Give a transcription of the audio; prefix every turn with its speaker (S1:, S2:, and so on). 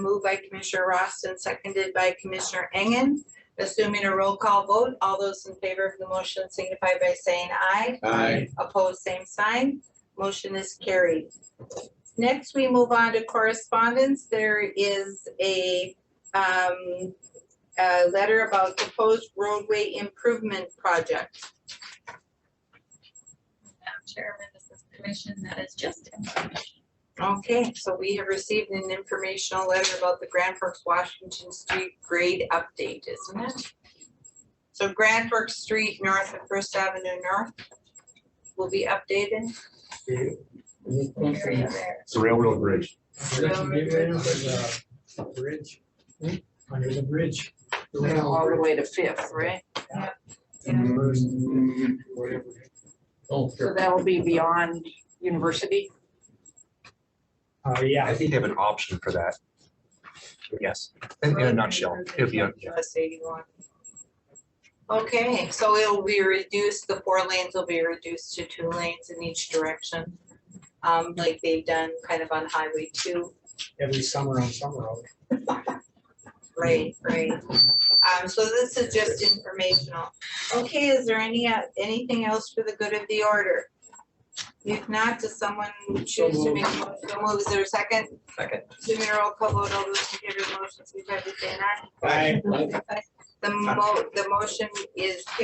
S1: Moved by Commissioner Roston, seconded by Commissioner Engen. Assuming a roll call vote, all those in favor of the motion signify by saying aye.
S2: Aye.
S1: Opposed, same sign. Motion is carried. Next, we move on to correspondence. There is a um a letter about proposed roadway improvement project.
S3: Madam Chairman, this is commission that is just information.
S1: Okay, so we have received an informational letter about the Grand Forks Washington Street grade update, isn't it? So Grand Forks Street north of First Avenue North will be updated.
S3: area there.
S2: It's a railroad bridge.
S4: We're gonna get rid of the uh, bridge, Hmm? under the bridge. the rail
S5: All the
S4: bridge,
S5: way to Fifth, right?
S4: and the first, whatever.
S2: Oh,
S5: So that'll be beyond university.
S4: Uh,
S6: I
S4: yeah,
S6: think they have an option for that. Yes, in in a nutshell, it'd be, a- yeah.
S1: US 81. Okay, so it'll be reduced, the four lanes will be reduced to two lanes in each direction. Um, like they've done kind of on Highway two.
S4: every summer on summer road.
S1: Right, right. Um, so this is just informational. Okay, is there any, uh, anything else for the good of the order? If not, does someone choose to make, a motion? so move, is there a second?
S6: Second.
S1: Jimmy roll call vote, all those in favor of the motion, signify by saying aye.
S4: Aye.
S1: The mo, the motion is